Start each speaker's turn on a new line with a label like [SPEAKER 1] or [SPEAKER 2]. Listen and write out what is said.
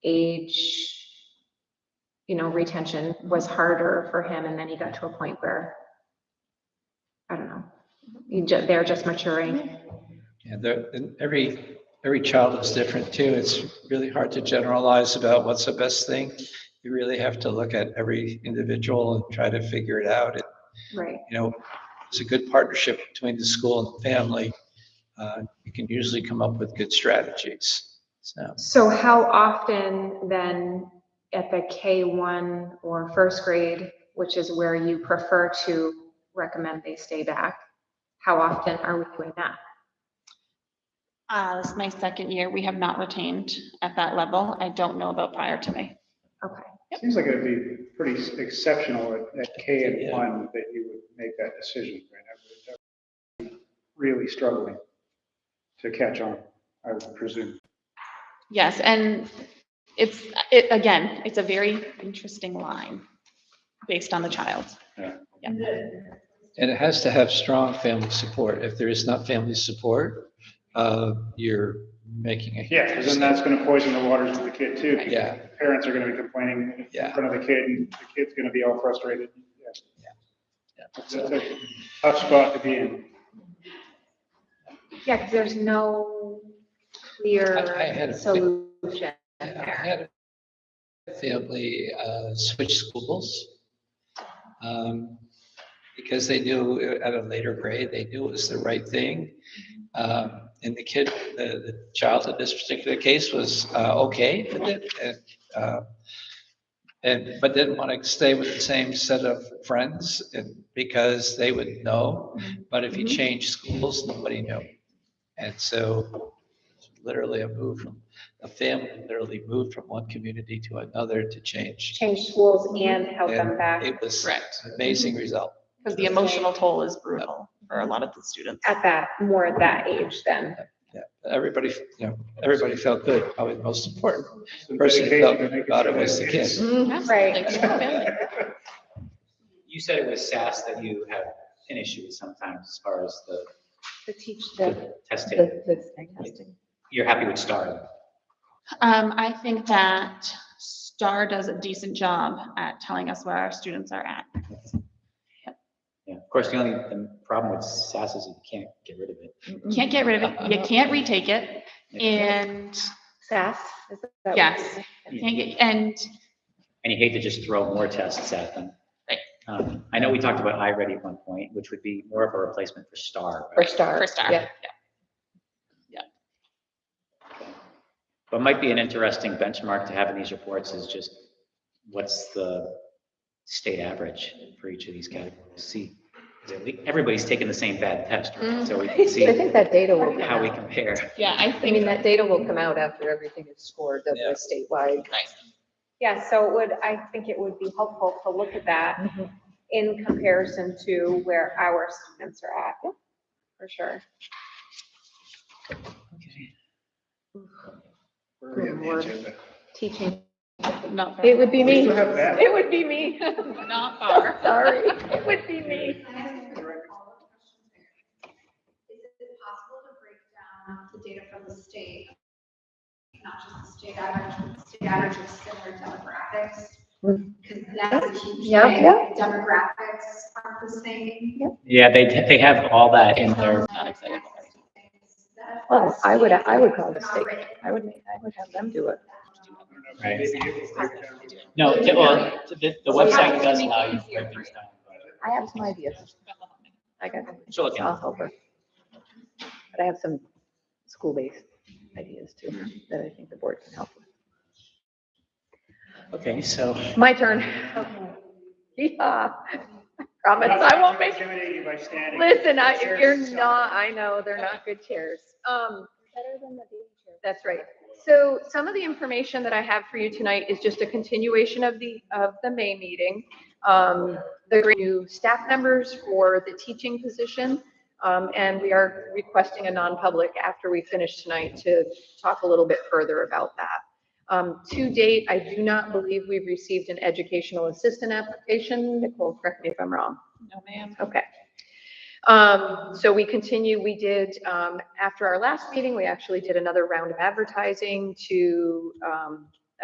[SPEAKER 1] age, you know, retention was harder for him, and then he got to a point where, I don't know, you ju- they're just maturing.
[SPEAKER 2] Yeah, there, and every, every child is different too. It's really hard to generalize about what's the best thing. You really have to look at every individual and try to figure it out. It-
[SPEAKER 1] Right,
[SPEAKER 2] You know, it's a good partnership between the school and family. Uh, You can usually come up with good strategies. So,
[SPEAKER 1] so how often then at the K one or first grade, which is where you prefer to recommend they stay back? How often are we doing that?
[SPEAKER 3] Uh, this is my second year. We have not retained at that level. I don't know about prior to me.
[SPEAKER 1] Okay,
[SPEAKER 4] Seems like it'd be pretty exceptional at- at K and
[SPEAKER 2] Yeah.
[SPEAKER 4] one that you would make that decision. right? I would- I would be Really struggling to catch on, I would presume.
[SPEAKER 3] Yes, and it's, it, again, it's a very interesting line based on the child.
[SPEAKER 2] and it has to have strong family support. If there is not family support, uh, you're making a. huge
[SPEAKER 4] Yeah, because then that's going to poison the waters with the kid too.
[SPEAKER 2] mistake.
[SPEAKER 4] because
[SPEAKER 2] Yeah,
[SPEAKER 4] the Parents are going to be complaining in
[SPEAKER 2] yeah.
[SPEAKER 4] front of the kid and the kid's going to be all frustrated. Yeah.
[SPEAKER 2] yeah.
[SPEAKER 4] That's a tough spot to be in.
[SPEAKER 1] yeah, because there's no
[SPEAKER 2] I- I
[SPEAKER 1] clear
[SPEAKER 2] had a-
[SPEAKER 1] solution
[SPEAKER 2] I
[SPEAKER 1] there.
[SPEAKER 2] had a Family uh, switch schools. um, Because they knew at a later grade, they knew it was the right thing. Um, And the kid, the the child in this particular case was uh, okay with it. and, uh, And, but didn't want to stay with the same set of friends and because they would know. But if you
[SPEAKER 1] Mm-hmm.
[SPEAKER 3] Mhm.
[SPEAKER 2] change schools, nobody knew. And so literally a move from a family literally moved from one community to another to change.
[SPEAKER 1] change schools and help them
[SPEAKER 2] And
[SPEAKER 1] back Mm-hmm.
[SPEAKER 2] It was
[SPEAKER 3] Correct.
[SPEAKER 2] an amazing result.
[SPEAKER 3] Because the emotional toll is brutal for a lot of the students.
[SPEAKER 1] at that, more at that age then.
[SPEAKER 2] Everybody, you know, everybody felt good. Probably the most important.
[SPEAKER 4] Some
[SPEAKER 2] Person
[SPEAKER 4] dedication
[SPEAKER 2] felt
[SPEAKER 4] to make
[SPEAKER 2] about it was the
[SPEAKER 4] success.
[SPEAKER 2] kid.
[SPEAKER 3] Mm-hmm.
[SPEAKER 1] Right.
[SPEAKER 3] Absolutely.
[SPEAKER 5] You said it was SAS that you have an issue with sometimes as far as the
[SPEAKER 6] To teach
[SPEAKER 5] the testing.
[SPEAKER 6] The, the snake testing.
[SPEAKER 5] You're happy with STAR?
[SPEAKER 3] Um, I think that STAR does a decent job at telling us where our students are at.
[SPEAKER 5] Yeah. Of course, the only the problem with SAS is you can't get rid of it.
[SPEAKER 3] Can't get rid of it. You can't retake it. And
[SPEAKER 6] SAS? is that what
[SPEAKER 3] Yes.
[SPEAKER 6] it is?
[SPEAKER 3] can't get, and
[SPEAKER 5] And you hate to just throw more tests at them.
[SPEAKER 3] Right.
[SPEAKER 5] Um, I know we talked about iReady at one point, which would be more of a replacement for STAR.
[SPEAKER 6] Or
[SPEAKER 5] right?
[SPEAKER 6] star.
[SPEAKER 3] for STAR.
[SPEAKER 6] Yeah.
[SPEAKER 5] But might be an interesting benchmark to have in these reports is just what's the state average for each of these categories? See, 'cause at lea- everybody's taking the same bad test, right? so we can
[SPEAKER 6] So I think
[SPEAKER 5] see
[SPEAKER 6] that data will come
[SPEAKER 5] how we
[SPEAKER 6] out.
[SPEAKER 5] compare.
[SPEAKER 3] Yeah, I
[SPEAKER 6] I
[SPEAKER 3] think
[SPEAKER 6] mean, that data will come out after everything is scored, that
[SPEAKER 2] Yeah.
[SPEAKER 6] the statewide.
[SPEAKER 1] Yeah, so it would, I think it would be helpful to look at that
[SPEAKER 3] Mm-hmm.
[SPEAKER 6] Mhm.
[SPEAKER 1] in comparison to where our students are at, for sure.
[SPEAKER 4] Where are we on the agenda?
[SPEAKER 1] Teaching.
[SPEAKER 3] not.
[SPEAKER 6] It would be
[SPEAKER 4] We
[SPEAKER 6] me.
[SPEAKER 4] still have that.
[SPEAKER 6] It would be me.
[SPEAKER 3] Not far.
[SPEAKER 6] Sorry, it would be me.
[SPEAKER 7] Is it possible to break down the data from the state? Not just the state average, but the state average of similar demographics?
[SPEAKER 6] Hmm.
[SPEAKER 7] Because that's a huge
[SPEAKER 6] Yeah,
[SPEAKER 7] thing.
[SPEAKER 6] yeah.
[SPEAKER 7] Demographics are the same. Um,
[SPEAKER 5] Yeah, they, they have all that in their,
[SPEAKER 3] Not excited.
[SPEAKER 6] Well, I would, I would call the state. I would, make- I would have them do it.
[SPEAKER 4] I don't know if maybe you could break it down with-
[SPEAKER 5] no, the- well, the, the website does allow you to break things down.
[SPEAKER 6] I have some ideas. I got,
[SPEAKER 5] So look,
[SPEAKER 6] I'll help her. But I have some school-based ideas too, that I think the board can help with.
[SPEAKER 5] okay, so.
[SPEAKER 6] My turn. Yeah, promise I won't make
[SPEAKER 4] Intimidate you by standing.
[SPEAKER 6] Listen, I,
[SPEAKER 4] Chairs
[SPEAKER 6] you're
[SPEAKER 4] suck.
[SPEAKER 6] not, I know, they're not good chairs. Um, that's right. So some of the information that I have for you tonight is just a continuation of the, of the May meeting. Um, the great new staff members for the teaching position. Um, and we are requesting a non-public after we finish tonight to talk a little bit further about that. Um, to date, I do not believe we've received an educational assistant application. Nicole, correct me if I'm wrong.
[SPEAKER 3] No, ma'am.
[SPEAKER 6] Okay. Um, so we continue, we did, um, after our last meeting, we actually did another round of advertising to, um,